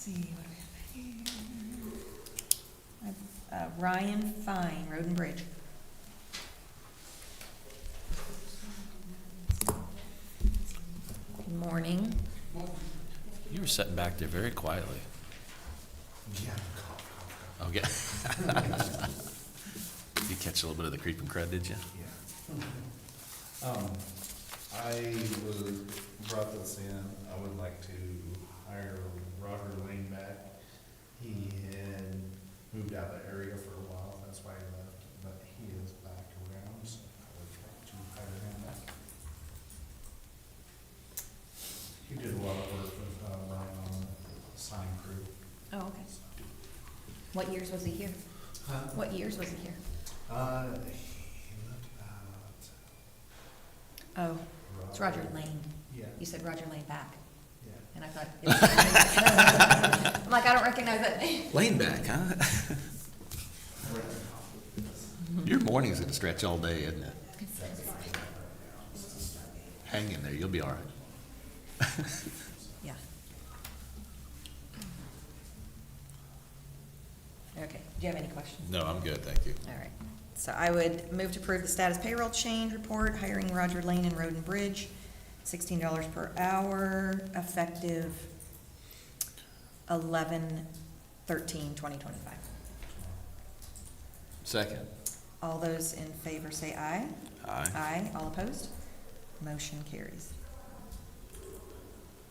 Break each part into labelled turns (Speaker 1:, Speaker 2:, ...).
Speaker 1: See, what do we have here? Uh, Ryan Fine, Road and Bridge. Good Morning.
Speaker 2: You were sitting back there very quietly. Yeah. Okay. You catch a little bit of the creeping crud, did you?
Speaker 3: Um, I was, brought this in, I would like to hire Roger Lane back. He had moved out of the area for a while, that's why he left, but he is back around, so I would like to hire him back. He did a lot of work with, uh, Ryan on the sign crew.
Speaker 1: Oh, okay. What years was he here? What years was he here?
Speaker 3: Uh, he left about.
Speaker 1: Oh, it's Roger Lane.
Speaker 3: Yeah,
Speaker 1: You said Roger Lane back,
Speaker 3: yeah.
Speaker 1: and I thought. it was- I'm like, I don't recognize that.
Speaker 2: Laying back, huh? Your morning's gonna stretch all day, isn't it? Hang in there, you'll be all right.
Speaker 1: Yeah. Okay, do you have any questions?
Speaker 2: No, I'm good, thank you.
Speaker 1: All right, so I would move to approve the status payroll change report, hiring Roger Lane and Roden Bridge, sixteen dollars per hour, effective eleven thirteen twenty twenty-five.
Speaker 2: Second.
Speaker 1: All those in favor say aye.
Speaker 2: Aye.
Speaker 1: Aye, all opposed? Motion carries.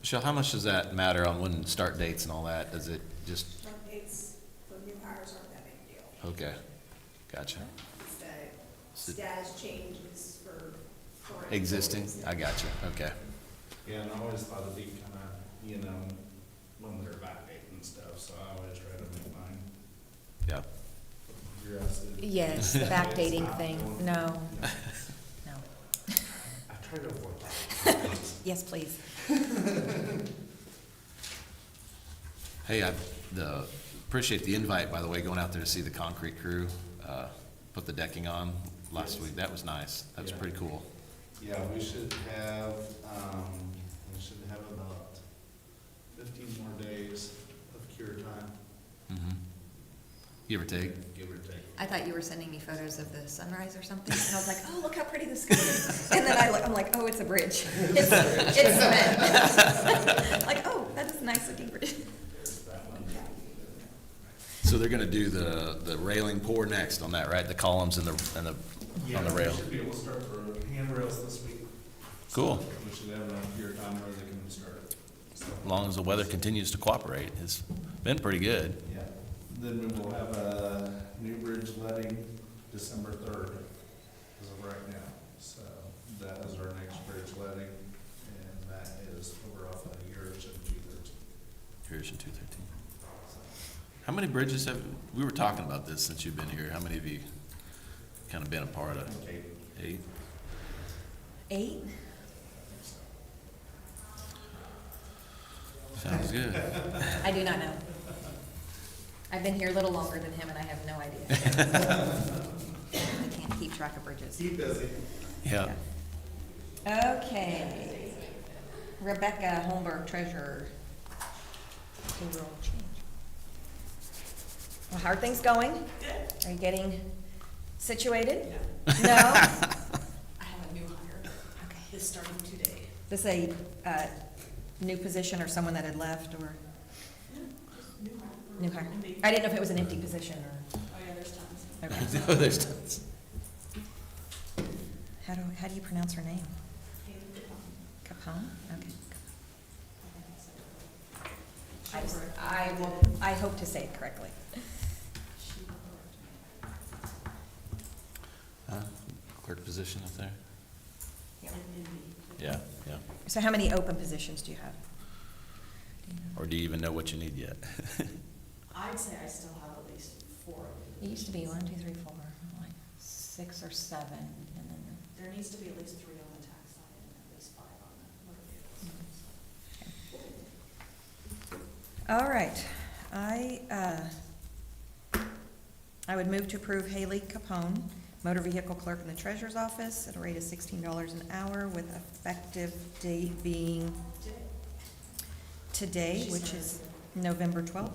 Speaker 2: Michelle, how much does that matter on when start dates and all that? Does it just,
Speaker 4: It's, the new hires aren't that big a deal.
Speaker 2: okay, gotcha.
Speaker 4: It's the
Speaker 2: Is it
Speaker 4: status changes for current.
Speaker 2: Existing,
Speaker 4: employees.
Speaker 2: I gotcha, okay.
Speaker 3: Yeah, and I always thought it'd be kind of, you know, when they're backdating and stuff, so I always try to make mine.
Speaker 2: Yeah.
Speaker 3: You're asking-
Speaker 1: Yes, the backdating thing, no,
Speaker 3: No,
Speaker 1: no.
Speaker 3: I try to avoid
Speaker 1: Yes, please.
Speaker 2: Hey, I, the, appreciate the invite, by the way, going out there to see the concrete crew, uh, put the decking on last week. That was nice. That was
Speaker 3: Yeah.
Speaker 2: pretty cool.
Speaker 3: that. Yeah, we should have, um, we should have about fifteen more days of cure time,
Speaker 2: Mhm. Give or take.
Speaker 3: give or take.
Speaker 1: I thought you were sending me photos of the sunrise or something, and I was like, oh, look how pretty the sky is. And then I, look- I'm like, oh, it's a bridge. It's, it's cement. Like, oh, that is a nice looking bridge.
Speaker 2: So they're gonna do the, the railing pour next on that, right? The columns and the, and the, on the
Speaker 3: Yeah,
Speaker 2: rail.
Speaker 3: we should be able to start the handrails this week.
Speaker 2: Cool.
Speaker 3: We should have enough cure time where they can start it, so.
Speaker 2: As long as the weather continues to cooperate. It's been pretty good.
Speaker 3: Yeah, then we will have a new bridge letting December third, as of right now. So that is our next bridge letting, and that is over off of yours and Jupiter's.
Speaker 2: Here's in two thirteen. How many bridges have, we were talking about this since you've been here. How many of you kind of been a part of?
Speaker 3: Okay,
Speaker 2: Eight?
Speaker 1: Eight?
Speaker 2: Sounds good.
Speaker 1: I do not know. I've been here a little longer than him, and I have no idea. I can't keep track of bridges.
Speaker 3: keep busy.
Speaker 2: Yeah.
Speaker 1: Okay. Rebecca Holmberg, treasurer. Payroll change. Well, how are things going? Are you getting situated? No?
Speaker 4: I have a new hire,
Speaker 1: Okay.
Speaker 4: this starting today.
Speaker 1: This a, uh, new position or someone that had left or? New hire. I didn't know if it was an empty position or,
Speaker 4: Oh, yeah, there's tons.
Speaker 1: okay.
Speaker 2: No, there's tons.
Speaker 1: How do, how do you pronounce her name?
Speaker 4: um,
Speaker 1: Capone? Okay. I, s- I will, I hope to say it correctly.
Speaker 2: Huh? Clerk position up there?
Speaker 1: Yeah.
Speaker 2: Yeah, yeah.
Speaker 1: So how many open positions do you have?
Speaker 2: Or do you even know what you need yet?
Speaker 4: I'd say I still have at least four of
Speaker 1: It
Speaker 4: them.
Speaker 1: used to be one, two, three, four, like six or seven, and then,
Speaker 4: There needs to be at least three on the tax side and at least five on the motor vehicle side.
Speaker 1: all right, I, uh, I would move to approve Haley Capone, motor vehicle clerk in the treasurer's office, at a rate of sixteen dollars an hour, with effective date being
Speaker 4: Today.
Speaker 1: today,
Speaker 4: She
Speaker 1: Mm-hmm. which
Speaker 4: started
Speaker 1: is
Speaker 4: today.
Speaker 1: November twelfth?